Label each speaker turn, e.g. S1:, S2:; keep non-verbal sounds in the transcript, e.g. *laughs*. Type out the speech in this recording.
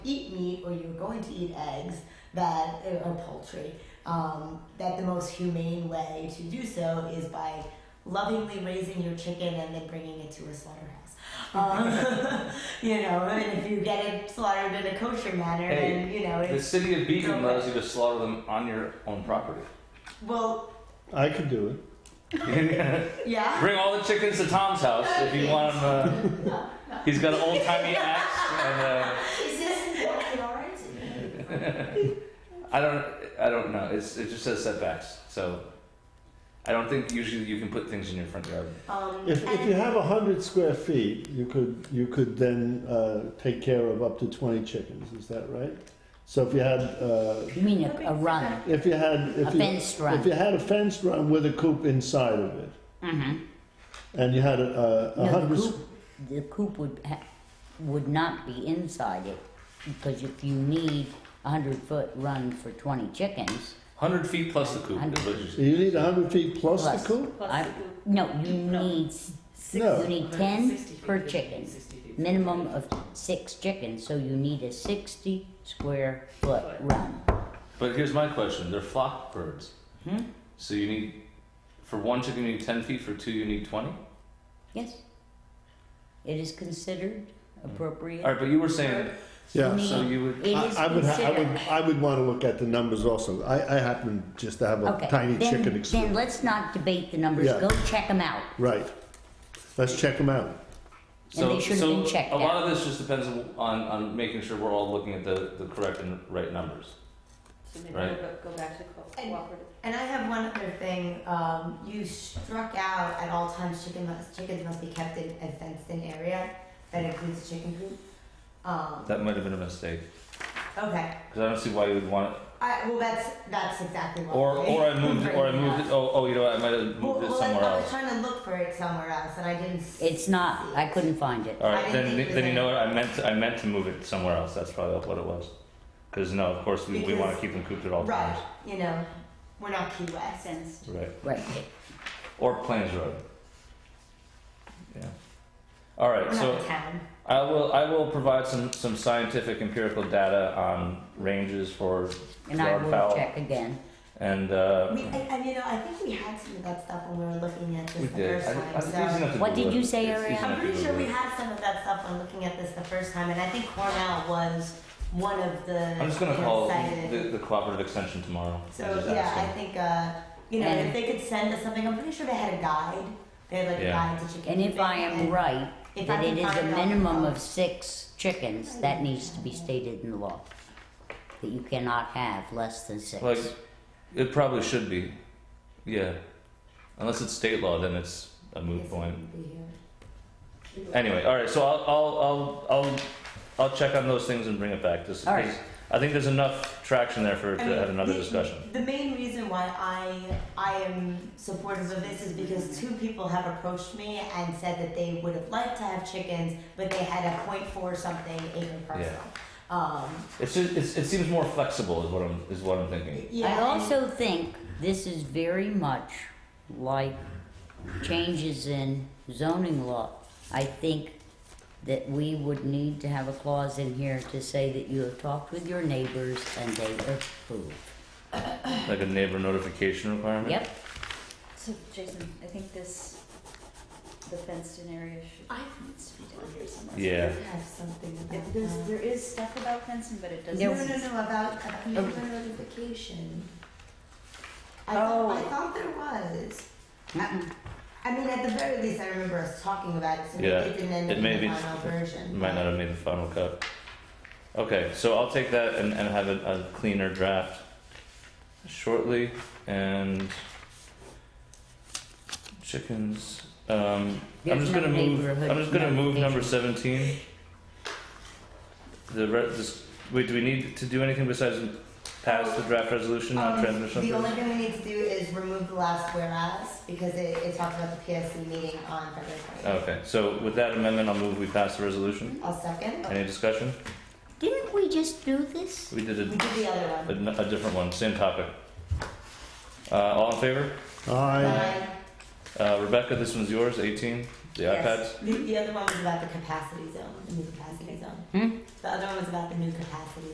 S1: eat or you were going to eat eggs that or poultry, um, that the most humane way to do so is by lovingly raising your chicken and then bringing it to a slaughterhouse. Um, *laughs* you know, and if you get it slaughtered in a kosher manner,
S2: Hey,
S1: then you know
S2: The
S1: it's
S2: city of Beacon
S1: Correct.
S2: allows you to slaughter them on your own property. *laughs*
S1: well,
S3: I could do it.
S2: Bring
S1: yeah.
S2: all the chickens to Tom's house if you want them. Uh, he's got an old timey axe, and uh,
S4: Is this what it already?
S2: I don't, I don't know. It's, it just says setbacks, so I don't think usually you can put things in your front yard.
S1: Um,
S3: If, if you have hundred square feet, you could you could then uh, take care of up to twenty chickens. Is that right? So if you had uh,
S5: You mean a, a run,
S3: if you had if
S5: a
S3: you
S5: fenced
S3: if you
S5: run?
S3: had a fenced run with a coop inside of it,
S5: Mm-hmm.
S3: and you had a, a, a
S5: No,
S3: hundred.
S5: the
S3: s-
S5: coop, the coop would, ha- would not be inside it, because if you need a hundred foot run for twenty chickens,
S2: Hundred feet plus the coop. is what
S3: So
S2: you-
S3: you need hundred feet plus,
S5: Plus.
S3: the coop.
S5: I, no, you need, s-
S3: No.
S5: you need ten per chicken. Minimum of six chickens, so you need a sixty square foot run.
S2: But here's my question: They're flock birds,
S5: Hmm?
S2: so you need for one chicken you need ten feet, for two you need twenty.
S5: Yes. It is considered appropriate.
S2: All right, but you were saying
S3: Yeah.
S5: Me.
S2: so you would.
S5: It
S3: I,
S5: is
S3: I would ha- I would
S5: considered.
S3: I would want to look at the numbers also. I, I happen just to have a
S5: Okay,
S3: tiny
S5: then-
S3: chicken
S5: Then
S3: experience.
S5: let's not debate the numbers,
S3: Yeah.
S5: go check them out.
S3: Right. Let's check them out.
S2: So,
S5: they should have
S2: so
S5: been checked
S2: a lot
S5: out.
S2: of this just depends on, on making sure we're all looking at the, the correct and right numbers. Right.
S4: Go back to co-
S1: And-
S4: cooperative.
S1: And I have one other thing. Um, you struck out at all times. Chicken must, chickens must be kept in a fenced-in area that includes chicken coop. Um,
S2: That might have been a mistake
S1: okay.
S2: because I don't see why you would want it.
S1: I, well, that's that's exactly what.
S2: Or
S1: we- *laughs*
S2: or I moved or I moved it. Oh oh, you know what, I might have
S1: Well,
S2: moved it
S1: well, I-
S2: somewhere
S1: I was
S2: else.
S1: trying to look for it somewhere else, and I didn't. s-
S5: It's not, I couldn't find it.
S2: All
S1: I
S2: right,
S1: didn't
S2: then
S1: think it
S2: then you
S1: was
S2: know what I meant to, I meant to move it somewhere else. That's probably what it was. Because no, of course we, we want to
S1: Because-
S2: keep them cooped at all
S1: Right.
S2: times.
S1: You know, we're not Key West.
S4: Sense.
S2: Right.
S5: Right,
S2: Or Plains Road. Yeah. All right.
S1: We're
S2: So
S1: not a town.
S2: I will I will provide some some scientific empirical data on ranges for
S5: and I
S2: Yard
S5: will
S2: fowl.
S5: check again.
S2: and uh,
S1: We, and, and you know, I think we had some of that stuff when we were looking at this
S2: we
S1: the
S2: did.
S1: first
S2: I-
S1: time.
S2: I-
S1: so.
S2: it's easy enough to
S5: What did
S2: Google
S5: you
S2: it.
S5: say,
S2: It's
S5: Ariel?
S2: easy enough
S1: I'm
S2: to
S1: pretty sure
S2: Google
S1: we
S2: it.
S1: had some of that stuff when looking at this the first time, and I think Cornell was one of the.
S2: I'm just gonna call
S1: cited.
S2: the, the cooperative extension tomorrow.
S1: So
S2: and just
S1: yeah,
S2: ask
S1: I
S2: them.
S1: think uh, you know
S5: And-
S1: if they could send us something, I'm pretty sure they had a guide. They had like
S2: Yeah.
S1: a guide to chicken.
S5: And if I am
S1: and
S5: right,
S1: if I
S5: that
S1: can
S5: it is a
S1: find it, I'll-
S5: minimum of six chickens, that needs to be stated in the law. That you cannot have less than six.
S2: Like, it probably should be, yeah. Unless it's state law, then it's a moot point. Anyway, all right. So I'll I'll I'll I'll, I'll check on those things and bring it back. Just
S5: All right.
S2: because I think there's enough traction there for
S1: I
S2: to
S1: mean,
S2: have another
S1: the-
S2: discussion.
S1: The main reason why I I am supportive of this is because two people have approached me and said that they would have liked to have chickens, but they had a point four something acre parcel. Um,
S2: It's just it's, it seems more flexible is what I'm is what I'm thinking.
S1: yeah,
S5: I
S1: and-
S5: also think this is very much like changes in zoning law. I think that we would need to have a clause in here to say that you have talked with your neighbors and they approve.
S2: Like a neighbor notification requirement.
S5: Yep,
S4: So Jason, I think this, the fenced-in area should, needs to be down here somewhere.
S2: Yeah.
S1: I have something
S4: It-
S1: about
S4: There's,
S1: that.
S4: there is stuff about fencing, but it doesn't.
S1: No, no, no, about, about neighbor notification. I
S4: Oh.
S1: thought, I thought there was. I, I mean, at the very least, I remember us talking about it, so maybe
S2: Yeah,
S1: it didn't end
S2: it
S1: up in
S2: may
S1: the
S2: be-
S1: final version.
S2: Might not have made the final cut. Okay, so I'll take that and, and have a, a cleaner draft shortly. And chickens. Um, I'm
S5: There's
S2: just
S5: no
S2: gonna move.
S5: neighborhood
S2: I'm just gonna move number
S5: notification.
S2: seventeen. The re- this, wait. Do we need to do anything besides pass the draft resolution on
S1: Um,
S2: transmission?
S1: The
S2: of
S1: only
S2: this?
S1: thing we need to do is remove the last whereas, because it, it talks about the PSC meeting on February twentieth.
S2: Okay. So with that amendment, I'll move. We pass the resolution.
S1: I'll second.
S2: Any discussion?
S5: didn't we just do this?
S2: We did
S1: We
S2: a,
S1: did the other one.
S2: a, a different one. Same topic. Uh, all in favor?
S3: I
S1: Aye.
S2: Uh, Rebecca, this one's yours, 18, the
S1: Yes. The, the other one was about the capacity zone, the new capacity zone.
S5: Hmm?
S1: The other one was about the new capacity